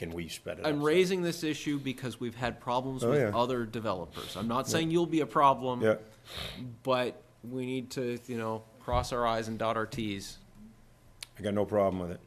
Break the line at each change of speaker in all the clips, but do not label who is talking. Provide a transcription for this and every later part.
Can we spread it?
I'm
outside?
raising this issue because we've had problems
Oh,
with
yeah.
other developers. I'm not saying you'll be a problem.
Yeah,
But we need to, you know, cross our i's and dot our t's.
I got no problem with it.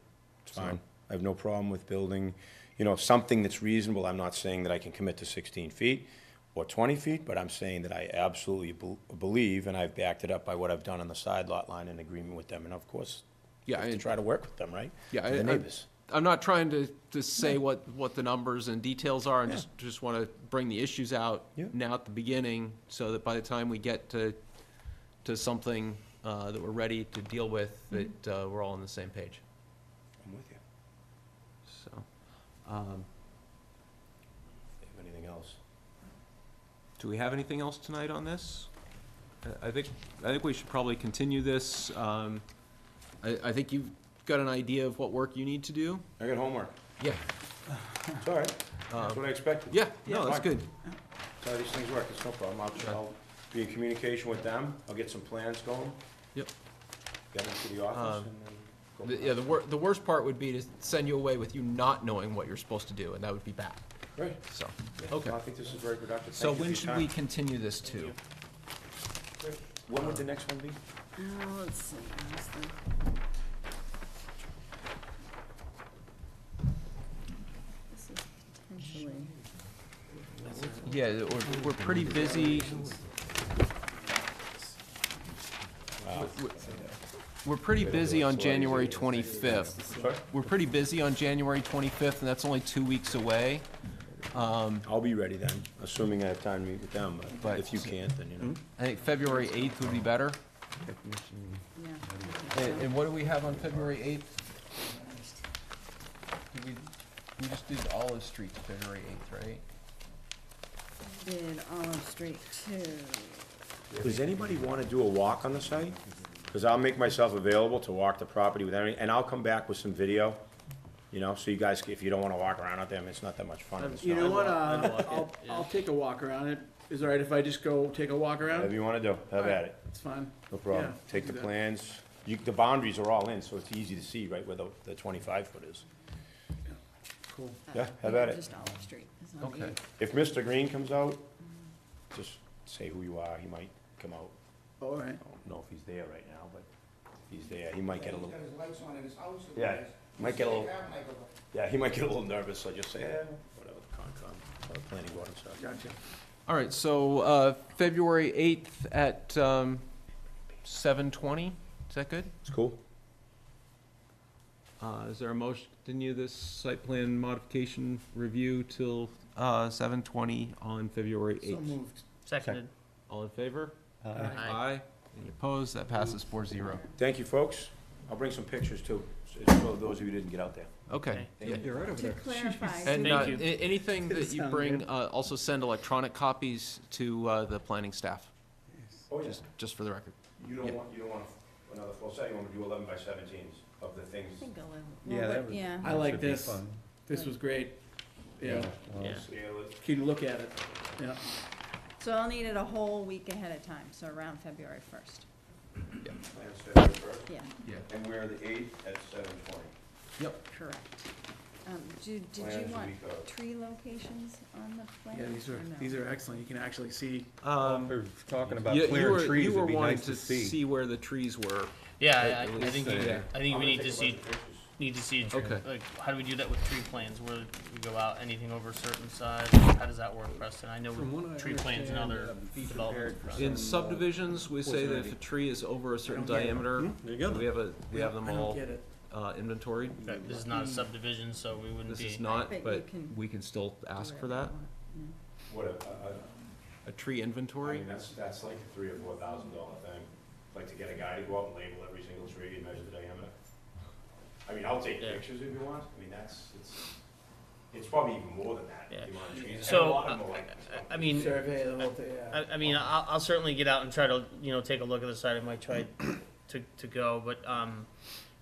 It's fine. I have no problem with building, you know, something that's reasonable. I'm not saying that I can commit to sixteen feet or twenty feet, but I'm saying that I absolutely bel- believe, and I've backed it up by what I've done on the side lot line in agreement with them, and of course, you
Yeah,
have to
I-
try to work with them, right?
Yeah,
To
I-
The
I-
neighbors.
I'm not trying to, to say what, what the numbers and details are, and
Yeah.
just, just want to bring the issues out
Yeah.
now at the beginning, so that by the time we get to, to something uh, that we're ready to deal with,
Mm-hmm.
that uh, we're all on the same page,
I'm with you.
so. um,
If you have anything else?
Do we have anything else tonight on this? I- I think, I think we should probably continue this. Um, I, I think you've got an idea of what work you need to do? Um,
I got homework.
Yeah.
It's all right. That's what I expected.
Yeah, no, that's
Fine.
good.
That's how these things work, it's no problem. I'll, I'll be in communication with them, I'll get some plans going,
Yep. Um,
get them to the office, and then go.
The-
from
Yeah, the wor- the worst part would be to send you away with you not knowing what you're supposed to do, and that would be bad,
there. Great.
so,
Yeah,
okay.
I think this is very productive.
So
Thank you
when
for your
should we
time.
continue this to?
When would the next one be?
Uh, let's see, where's the- This is potentially,
Yeah, we're, we're pretty busy. We're- We're pretty busy on January twenty-fifth.
Sorry?
We're pretty busy on January twenty-fifth, and that's only two weeks away.
I'll be ready then, assuming I have time to meet with them, but
But-
if you can't, then, you know.
I think February eighth would be better.
yeah.
And, and what do we have on February eighth? Did we, we just did Olive Street February eighth, right?
Did Olive Street too.
Does anybody want to do a walk on the site? Because I'll make myself available to walk the property with any, and I'll come back with some video, you know, so you guys, if you don't want to walk around out there, I mean, it's not that much fun.
Um,
It's
You
not-
know what, uh, I'll, I'll take a walk around it, is it alright if I just go take a walk
Whatever
around?
you want to do, have at it.
It's fine.
No problem.
Yeah,
Take the
do that.
plans. You, the boundaries are all in, so it's easy to see right where the, the twenty-five foot is.
Cool.
Yeah, how about it?
Uh, Just Olive Street. It's not
Okay.
eight.
If Mr. Green comes out, just say who you are. He might come out.
Alright,
I don't know if he's there right now, but if he's there, he might get a
He's
little,
got his lights on in his house. and
Yeah,
he's-
might
he's
get a
saying,
little-
"Ah, Michael,
yeah, he might get a little nervous, so just say, eh, whatever, Concom, or planning board and stuff.
gotcha.
All right, so, uh, February eighth at, um, seven twenty, is that good?
It's cool.
Uh, is there a motion, continue this site plan modification review till, uh, seven twenty on February
So
eighth?
moved.
Seconded.
All in favor?
Aye.
Aye. Any opposed? That passes four zero.
Thank you, folks. I'll bring some pictures too, so- for those of you who didn't get out there.
Okay. Yeah.
You're right over
To clarify.
And,
Thank
uh,
you.
a- anything that you
Sound
bring,
good.
uh, also send electronic copies to, uh, the planning staff,
Oh,
just, just for the record.
You
yeah.
don't want, you don't want another full set, you want to do eleven by seventeens of the
I
things.
think eleven.
Yeah,
Well,
that
but-
would-
Yeah,
I like
Should be
this,
fun.
this was great, yeah,
Yeah.
Scale it.
can look at it, yeah.
so I'll need it a whole week ahead of time, so around February first,
Plans February first.
yeah,
Yeah.
And we're the eighth at seven twenty.
Yep.
correct. Um, do, did
Plans
you
the
want
week of.
tree locations on the plan?
Yeah, these are,
or no?
these are excellent, you can actually see,
Um,
We're talking about
you- you were-
clearing trees,
You were
it'd be
wanting
nice to
to
see.
see where the trees were.
Yeah,
At-
I,
at
I- I
least,
think,
uh,
we-
yeah.
I think
I'm
we
gonna
need to
take a
see,
bunch of pictures.
need to see a tree.
Okay.
Like, how do we do that with tree plans? Where we go out, anything over a certain size? How does that work, Preston? I know
From what I
with tree plans and
understand,
other
um, be
developments.
prepared for
In
some, uh,
subdivisions, we say that if a
poison
tree is over a certain
don't get it.
diamener,
Hmm?
we have a, we have them
Hmm? I don't
all
get it.
uh, inventoried.
Right, This is not a subdivision, so we wouldn't
This
be.
is not,
But you
but
can
we can still ask for
Wherever you
that,
want.
Whatever, I,
a
I,
tree
I
inventory.
mean, that's, that's like a three or four thousand dollar thing. Like to get a guy to go out and label every single tree and measure the diameter. I mean, I'll take
Yeah.
pictures if you want, I mean, that's, it's, it's probably even more than that,
Yeah.
if you want trees. And a
So,
lot
uh,
of them are like-
I- I mean,
Survey the whole thing, yeah.
I, I mean, I'll, I'll certainly get out and try to, you know, take a look at the site. I might try to, to go, but, um,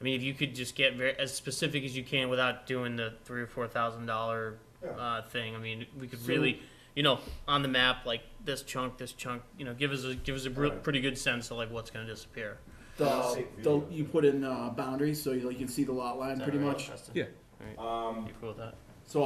I mean, if you could just get very, as specific as you can without doing the three or four thousand dollar, uh, thing, I mean, we could really, you know, on the map, like this chunk, this chunk, you know, give us a, give us a br-
Alright.
pretty good sense of like what's gonna disappear.
The, the, you put in, uh, boundaries, so you, like, you can see the lot line
Is that
pretty
all right,
much, Um,
Preston?
Yeah.
All right. You cool with that?